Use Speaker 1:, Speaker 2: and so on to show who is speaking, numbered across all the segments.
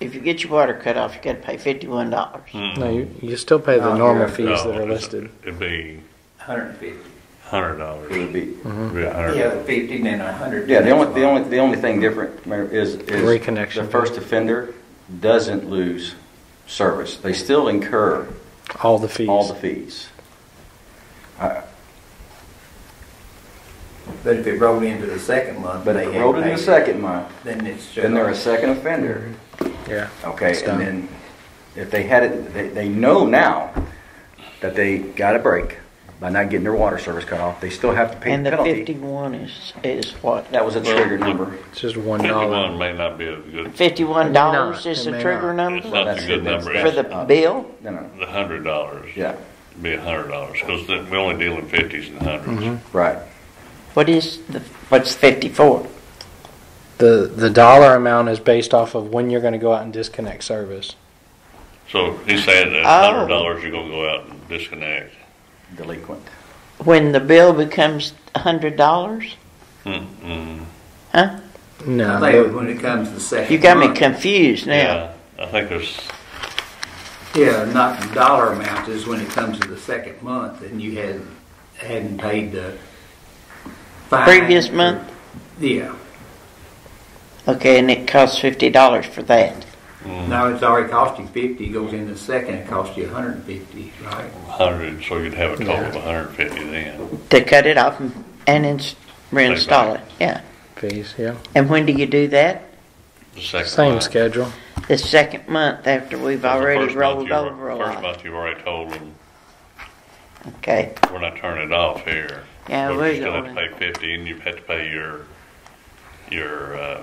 Speaker 1: if you get your water cut off, you got to pay fifty-one dollars.
Speaker 2: Hmm.
Speaker 3: No, you, you still pay
Speaker 2: Oh,
Speaker 3: the normal
Speaker 4: yeah.
Speaker 3: fees that
Speaker 2: No,
Speaker 5: Oh.
Speaker 3: are
Speaker 2: Mm-hmm. it's-
Speaker 3: listed.
Speaker 2: It'd be
Speaker 4: Hundred and fifty.
Speaker 2: hundred dollars.
Speaker 4: Would be,
Speaker 1: Mm-hmm.
Speaker 2: Yeah.
Speaker 4: yeah, fifty and then a hundred.
Speaker 5: Yeah, the only, the only, the only thing different Mayor, is, is.
Speaker 3: Reconnection.
Speaker 5: The first offender doesn't lose service. They still incur
Speaker 3: All the fees.
Speaker 5: all the fees.
Speaker 4: But if it rolled into the second month.
Speaker 5: But
Speaker 4: they
Speaker 5: if it
Speaker 4: had
Speaker 5: rolled in
Speaker 4: paid
Speaker 5: the
Speaker 4: it,
Speaker 5: second month,
Speaker 4: Then it's.
Speaker 5: then they're a
Speaker 4: just-
Speaker 5: second offender.
Speaker 3: yeah.
Speaker 5: Okay,
Speaker 3: It's done.
Speaker 5: and then if they had it, they, they know now that they got a break by not getting their water service cut off. They still have to pay
Speaker 1: And
Speaker 5: the
Speaker 1: the
Speaker 5: penalty.
Speaker 1: fifty-one is, is what?
Speaker 5: That was a trigger number.
Speaker 3: It's just one
Speaker 2: Fifty-one
Speaker 3: dollar.
Speaker 2: may not be a good,
Speaker 1: Fifty-one dollars
Speaker 3: It may not.
Speaker 1: is
Speaker 3: It
Speaker 1: the
Speaker 3: may
Speaker 1: trigger
Speaker 3: not.
Speaker 2: it's
Speaker 1: number
Speaker 2: not
Speaker 5: That's
Speaker 2: a good
Speaker 5: the- Uh,
Speaker 2: number.
Speaker 1: for
Speaker 2: It's
Speaker 1: the bill?
Speaker 5: No, no,
Speaker 2: the hundred dollars.
Speaker 5: yeah,
Speaker 2: Be a hundred dollars, because we only deal in fifties and hundreds.
Speaker 1: Mm-hmm.
Speaker 5: right.
Speaker 1: What is the, what's fifty-four?
Speaker 3: The the dollar amount is based off of when you're going to go out and disconnect service.
Speaker 2: So he's saying that
Speaker 1: Oh.
Speaker 2: hundred dollars, you're gonna go out and disconnect.
Speaker 5: Delinquent.
Speaker 1: When the bill becomes a hundred dollars?
Speaker 2: Mm-mm.
Speaker 1: Huh?
Speaker 3: No,
Speaker 4: I think when it comes to the second.
Speaker 1: You got me
Speaker 4: month,
Speaker 1: confused now.
Speaker 2: Yeah, I think there's,
Speaker 4: Yeah, not the dollar amount is when it comes to the second month and you hadn't, hadn't paid the. fine
Speaker 1: Previous
Speaker 4: or-
Speaker 1: month?
Speaker 4: Yeah,
Speaker 1: Okay, and it costs fifty dollars for that.
Speaker 2: mm,
Speaker 4: now it's already cost you fifty, goes into second, it costs you a hundred and fifty, right?
Speaker 2: hundred, so you'd have a total of hundred and fifty then.
Speaker 1: To cut it off and- and ins- reinstall it, yeah.
Speaker 3: fees. Yeah,
Speaker 1: And when do you do that?
Speaker 2: The second
Speaker 3: same
Speaker 2: month.
Speaker 3: schedule.
Speaker 1: The second month after we've
Speaker 2: The
Speaker 1: already
Speaker 2: first month
Speaker 1: rolled
Speaker 2: you
Speaker 1: over
Speaker 2: were-
Speaker 1: a
Speaker 2: First
Speaker 1: lot.
Speaker 2: month, you already told them,
Speaker 1: Okay,
Speaker 2: we're not turning it off here.
Speaker 1: Yeah,
Speaker 2: But
Speaker 1: we're
Speaker 2: You still have to
Speaker 1: going.
Speaker 2: pay fifty, and you have to pay your, your, uh,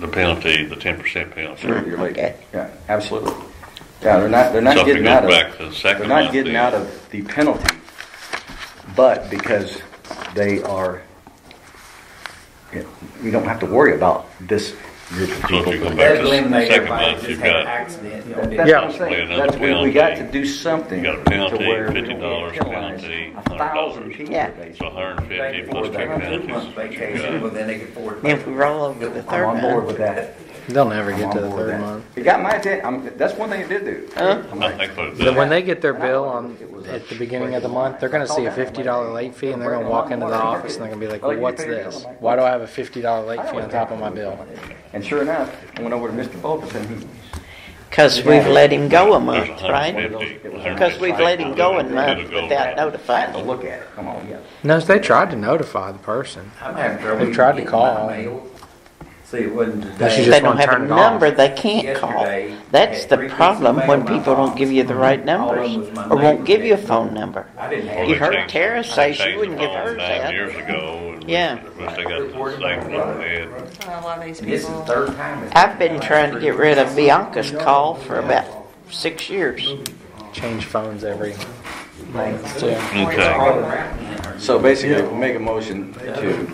Speaker 2: the penalty, the ten percent penalty.
Speaker 5: Sure, you're late.
Speaker 1: Okay.
Speaker 5: Yeah, absolutely. Yeah, they're not, they're not
Speaker 2: So if it
Speaker 5: getting out
Speaker 2: goes
Speaker 5: of.
Speaker 2: back to the second
Speaker 5: They're
Speaker 2: month.
Speaker 5: not getting
Speaker 2: then-
Speaker 5: out of the penalty, but because they are, you know, you don't have to worry about this group of
Speaker 2: So if
Speaker 5: people.
Speaker 2: you go back
Speaker 4: That
Speaker 2: to the
Speaker 4: eliminates
Speaker 2: second
Speaker 4: everybody
Speaker 2: month,
Speaker 4: just
Speaker 2: you've
Speaker 4: had an
Speaker 2: got,
Speaker 4: accident.
Speaker 5: That's
Speaker 4: on
Speaker 5: what
Speaker 4: this.
Speaker 3: Yeah.
Speaker 5: I'm
Speaker 2: Play
Speaker 5: saying,
Speaker 2: another
Speaker 5: that's we, we
Speaker 2: penalty.
Speaker 5: got to do
Speaker 2: You
Speaker 5: something
Speaker 2: got a
Speaker 5: to
Speaker 2: penalty,
Speaker 5: where we
Speaker 2: $50
Speaker 5: don't get penalized.
Speaker 2: penalty,
Speaker 5: A thousand
Speaker 2: $100.
Speaker 5: people
Speaker 1: Yeah.
Speaker 5: today.
Speaker 2: so hundred and
Speaker 4: They
Speaker 2: fifty
Speaker 4: could
Speaker 2: plus
Speaker 4: afford
Speaker 2: two
Speaker 4: that two-month
Speaker 2: penalties.
Speaker 4: vacation, well, then they could afford.
Speaker 1: then if we roll over the
Speaker 5: I'm
Speaker 1: third
Speaker 5: on board
Speaker 1: month,
Speaker 5: with that.
Speaker 3: They'll never
Speaker 5: I'm
Speaker 3: get
Speaker 5: on
Speaker 3: to the
Speaker 5: board with
Speaker 3: third
Speaker 5: that.
Speaker 3: month.
Speaker 5: It got my attention, I'm, that's one thing it did do. I'm
Speaker 2: I
Speaker 5: like,
Speaker 2: think what it
Speaker 3: Then
Speaker 2: does,
Speaker 3: when they get their bill on
Speaker 5: It was a
Speaker 3: at the beginning of the month, they're going to see a fifty dollar late fee, and they're going to walk into the office and they're going to be like, well, "What's this? Why do I have a fifty dollar late fee on top of my bill?"
Speaker 5: And sure enough, I went over to Mr. Fulkerson, he
Speaker 1: because we've let him go a
Speaker 2: there's
Speaker 1: month, right?
Speaker 2: 150,
Speaker 1: Because we've let him go a
Speaker 2: 150,
Speaker 1: month
Speaker 2: it'll go
Speaker 1: without
Speaker 2: back.
Speaker 1: notifying
Speaker 5: to
Speaker 1: him.
Speaker 5: look at it, come on, yeah.
Speaker 3: No, they tried to notify the person.
Speaker 4: I'm having trouble.
Speaker 3: They tried to
Speaker 4: getting
Speaker 3: call.
Speaker 4: my mail. See, it wasn't today.
Speaker 3: That's
Speaker 1: If
Speaker 3: just
Speaker 1: they don't
Speaker 3: wanna
Speaker 1: have a
Speaker 3: turn it off.
Speaker 1: number, they can't call.
Speaker 4: Yesterday, I
Speaker 1: That's
Speaker 4: had
Speaker 1: the
Speaker 4: three
Speaker 1: problem
Speaker 4: pieces of
Speaker 1: when
Speaker 4: mail in my
Speaker 1: people don't
Speaker 4: box.
Speaker 1: give you the right
Speaker 4: All of
Speaker 1: numbers
Speaker 4: them was my
Speaker 1: or won't
Speaker 4: name.
Speaker 1: give you a phone number.
Speaker 4: I didn't
Speaker 2: or
Speaker 4: have.
Speaker 2: they
Speaker 1: You heard
Speaker 2: changed-
Speaker 1: Tara say
Speaker 2: they
Speaker 1: she
Speaker 2: changed
Speaker 1: wouldn't
Speaker 2: the
Speaker 1: give
Speaker 2: phone
Speaker 1: hers
Speaker 2: Nine
Speaker 1: that.
Speaker 2: years ago, and
Speaker 1: Yeah.
Speaker 2: they got the same one they had.
Speaker 6: A lot of these
Speaker 4: And This is the
Speaker 6: people.
Speaker 4: third time. it's-
Speaker 1: I've been trying to get rid of Bianca's call for about six years.
Speaker 3: Change phones every month. too.
Speaker 2: Okay,
Speaker 4: All around.
Speaker 5: So basically, we make a motion to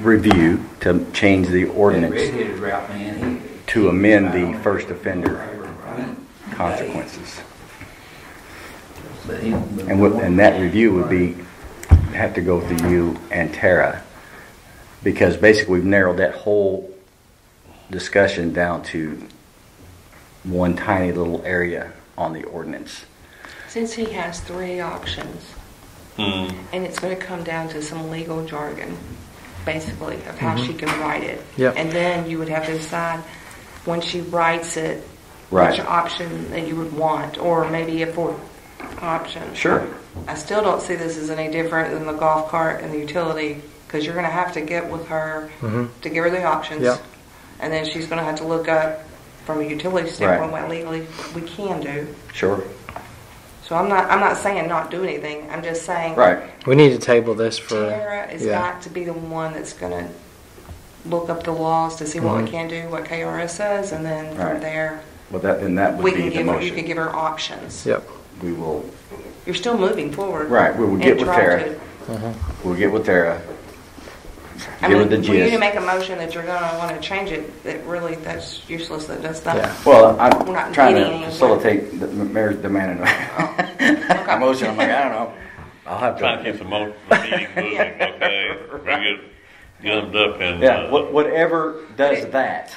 Speaker 5: review, to change the ordinance,
Speaker 4: Redheaded route man. he-
Speaker 5: to amend the first offender consequences.
Speaker 4: But he-
Speaker 5: And what, and that review would be, have to go through you and Tara, because basically, we've narrowed that whole discussion down to one tiny little area on the ordinance.
Speaker 6: Since he has three options,
Speaker 2: Hmm.
Speaker 6: and it's going to come down to some legal jargon, basically, of how
Speaker 5: Mm-hmm.
Speaker 6: she can write it.
Speaker 3: Yep.
Speaker 6: And then you would have to decide when she writes it,
Speaker 5: Right.
Speaker 6: which option that you would want, or maybe a fourth option.
Speaker 5: Sure.
Speaker 6: I still don't see this as any different than the golf cart and the utility because you're going to have to get with her
Speaker 5: Mm-hmm.
Speaker 6: to give her the options.
Speaker 3: Yeah.
Speaker 6: And then she's going to have to look up from a utility standpoint what legally we can do.
Speaker 5: Sure.
Speaker 6: So I'm not I'm not saying not do anything. I'm just saying
Speaker 5: Right.
Speaker 3: We need to table this for.
Speaker 6: Tara is
Speaker 3: yeah.
Speaker 6: got to be the one that's going to look up the laws to see what we
Speaker 3: Mhm.
Speaker 6: can do, what KRS says, and then
Speaker 5: Right.
Speaker 6: from there
Speaker 5: Well, that, then that
Speaker 6: we
Speaker 5: would
Speaker 6: can
Speaker 5: be the
Speaker 6: give her, you can
Speaker 5: motion.
Speaker 6: give her options.
Speaker 3: Yep.
Speaker 5: We will,
Speaker 6: You're still moving forward.
Speaker 5: Right, we will
Speaker 6: and
Speaker 5: get with
Speaker 6: try
Speaker 5: Tara.
Speaker 6: to-
Speaker 5: we'll get with Tara,
Speaker 6: I
Speaker 5: give her the
Speaker 6: mean, for you to
Speaker 5: gist.
Speaker 6: make a motion that you're gonna wanna change it, that really, that's useless, that does
Speaker 3: Yeah.
Speaker 6: not.
Speaker 5: Well,
Speaker 6: We're
Speaker 5: I'm
Speaker 6: not
Speaker 5: trying
Speaker 6: meeting
Speaker 5: to
Speaker 6: anywhere.
Speaker 5: facilitate the mayor's demand and
Speaker 6: okay.
Speaker 5: motion. I'm like, I don't know. I'll have
Speaker 2: trying to
Speaker 5: to.
Speaker 2: keep the mo- the meeting moving, okay? We get gummed up in.
Speaker 5: Yeah,
Speaker 2: uh,
Speaker 5: what- whatever does that.